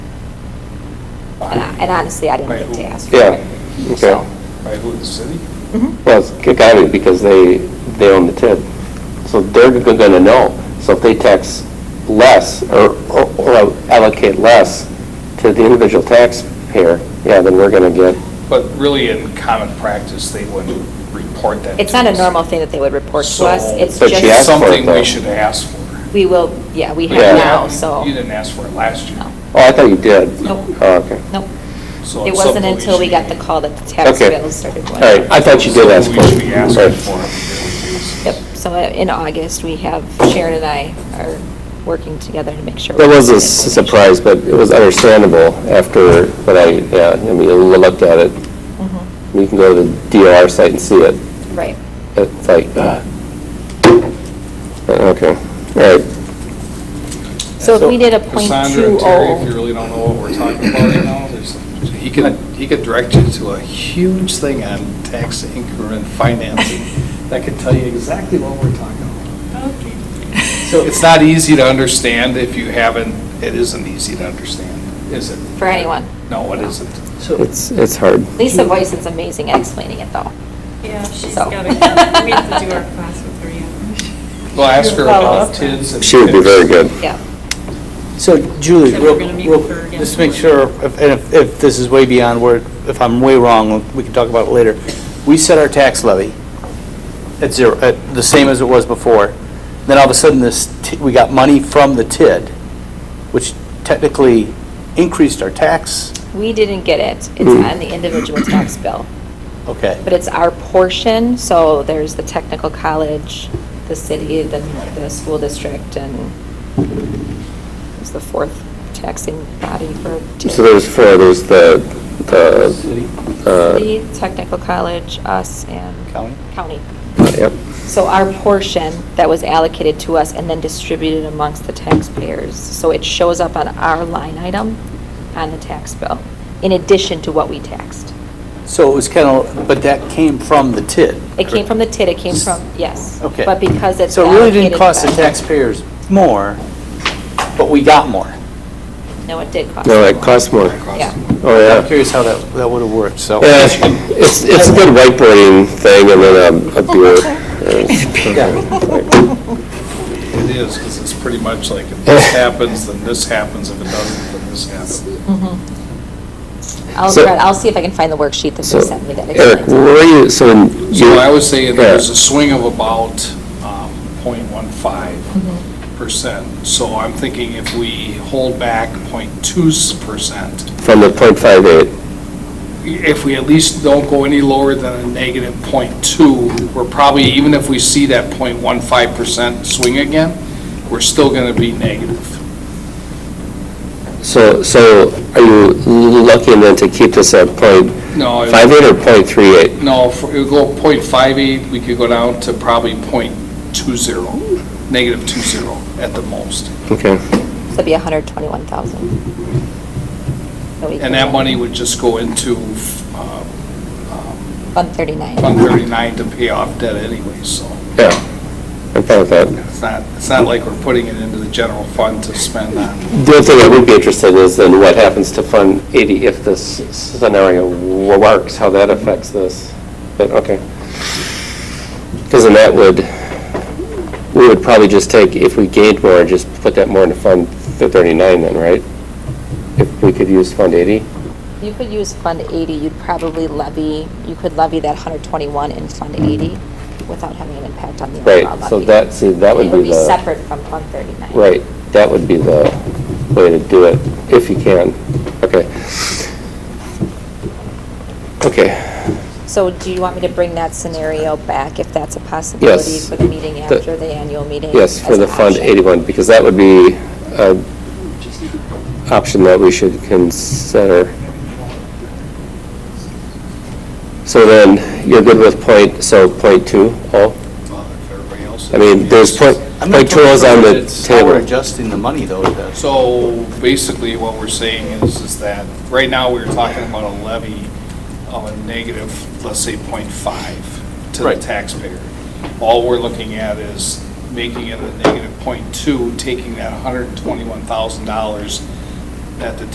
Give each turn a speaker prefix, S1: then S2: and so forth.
S1: and I- and honestly, I didn't get to ask for Mm-hmm.
S2: Yeah,
S1: it.
S2: okay.
S3: By who, the city?
S2: Well, it's Cook County because they, they own the TID. So they're going to know. So if they tax less or or- or allocate less to the individual taxpayer, yeah, then we're going to get,
S3: But really, in common practice, they wouldn't report that.
S1: It's
S3: to
S1: not a
S3: us.
S1: normal thing that they would report to
S3: So,
S1: us, it's
S2: But she asked
S1: just,
S2: for it,
S3: Something
S2: though.
S3: we should ask for.
S1: we will, yeah, we
S2: Yeah.
S1: have now, so.
S3: You didn't ask for it last year.
S1: No.
S2: oh, I thought you did.
S1: Nope.
S2: Oh, okay.
S1: Nope.
S3: So
S1: It
S3: it's
S1: wasn't
S3: something
S1: until we
S3: should
S1: got
S3: be-
S1: the call that the tax
S2: Okay.
S1: bill started
S2: All
S1: going.
S2: right, I thought you did ask for it.
S3: something We should be asking
S2: Right.
S3: for it.
S1: Yep, so uh, in August, we have, Sharon and I are working together to make sure.
S2: That
S1: we
S2: was a
S1: get
S2: s-
S1: information.
S2: surprise, but it was understandable after what I, yeah, I mean, I looked at it.
S1: Mhm.
S2: You can go to the DOR site and see it.
S1: Right.
S2: It's like, ah. Okay, all right.
S1: So if we did a point
S3: Cassandra
S1: two
S3: and Terry, if you
S1: oh,
S3: really don't know what we're talking about right now, there's, he could, he could direct you to a huge thing on tax increment financing that could tell you exactly what we're talking about. So it's not easy to understand if you haven't, it isn't easy to understand, is it?
S1: for anyone.
S3: No, it isn't.
S2: It's, it's hard.
S1: Lisa Voice is amazing at explaining it, though.
S4: Yeah, she's
S1: So.
S4: got to, we have to do our class with her, yeah.
S3: Well, ask her about
S4: Follow up.
S3: TIDS and.
S2: She would be very good.
S1: Yeah.
S5: So Julie,
S4: So we're
S5: real,
S4: gonna meet
S5: real-
S4: with her again
S5: just to make sure,
S4: tomorrow.
S5: if- and if, if this is way beyond where, if I'm way wrong, we can talk about it later. We set our tax levy at zero, at the same as it was before. Then all of a sudden, this, t- we got money from the TID, which technically increased our tax.
S1: We didn't get it. It's
S2: Hmm.
S1: on the individual tax bill.
S5: Okay.
S1: But it's our portion, so there's the technical college, the city, the, the school district, and it's the fourth taxing body for.
S2: So there's four, there's the, the, uh,
S1: City, technical college, us, and.
S5: County?
S1: County.
S2: uh, yep,
S1: So our portion that was allocated to us and then distributed amongst the taxpayers. So it shows up on our line item on the tax bill, in addition to what we taxed.
S5: So it was kind of, but that came from the TID.
S1: It came from the TID, it came from, yes.
S5: Okay.
S1: But because it's
S5: So it really didn't
S1: allocated
S5: cost the
S1: by-
S5: taxpayers more, but we got more.
S1: No, it did cost.
S2: no,
S1: us
S2: it
S1: more.
S2: costs more.
S1: Yeah.
S2: Oh, yeah.
S5: I'm curious how that, that would have worked, so.
S2: Yeah, It's, it's a good whiteboarding thing and then a-
S1: Oh,
S2: a beer. Yeah.
S3: It is, because it's pretty much like, if this happens, then this happens, if it doesn't, then this happens.
S1: Mm-hmm. I'll,
S2: So-
S1: I'll see if I can find the worksheet that
S2: So,
S1: they sent me that.
S2: Eric,
S1: explains it.
S2: were you, so in.
S3: So I would say
S2: Yeah.
S3: there's a swing of about um, 0.15 percent. So I'm thinking if we hold back 0.2 percent,
S2: From the point five eight,
S3: if we at least don't go any lower than a negative 0.2, we're probably, even if we see that 0.15 percent swing again, we're still going to be negative.
S2: so, so are you lucky then to keep this at point
S3: No, it-
S2: five eight or point three eight?
S3: No, if it would go 0.58, we could go down to probably 0.20, negative 20 at the most.
S2: Okay,
S1: So it'd be hundred twenty-one thousand.
S3: And that money would just go into uh,
S1: Fund thirty-nine.
S3: Fund 39 to pay off debt anyway, so
S2: yeah, I'm fine with that.
S3: it's not, it's not like we're putting it into the general fund to spend on.
S2: The other thing I would be interested is then what happens to Fund 80 if this scenario works, how that affects this. But, okay. Because then that would, we would probably just take, if we gained more, just put that more into Fund 39 then, right? If we could use Fund 80?
S1: You could use Fund 80, you'd probably levy, you could levy that 121 in Fund 80 without having an impact on the
S2: Right,
S1: overall levy.
S2: so that- see, that would
S1: It would
S2: be
S1: be
S2: the-
S1: separate from Fund 39.
S2: Right, that would be the way to do it, if you can. Okay. Okay.
S1: So do you want me to bring that scenario back, if that's a possibility,
S2: Yes.
S1: for the meeting
S2: The-
S1: after the annual meeting?
S2: Yes, for
S1: as
S2: the
S1: an
S2: Fund
S1: option?
S2: 81, because that would be an option that we should consider. So then, you're good with point, so point two, oh? I mean, there's point,
S5: I'm not
S2: point two is on the
S5: It's how we're
S2: table.
S5: adjusting the money, though, that's
S3: So basically what we're saying is, is that right now we're talking about a levy of a negative, let's say 0.5 to the
S5: Right.
S3: taxpayer. All we're looking at is making it a negative 0.2, taking that $121,000 that the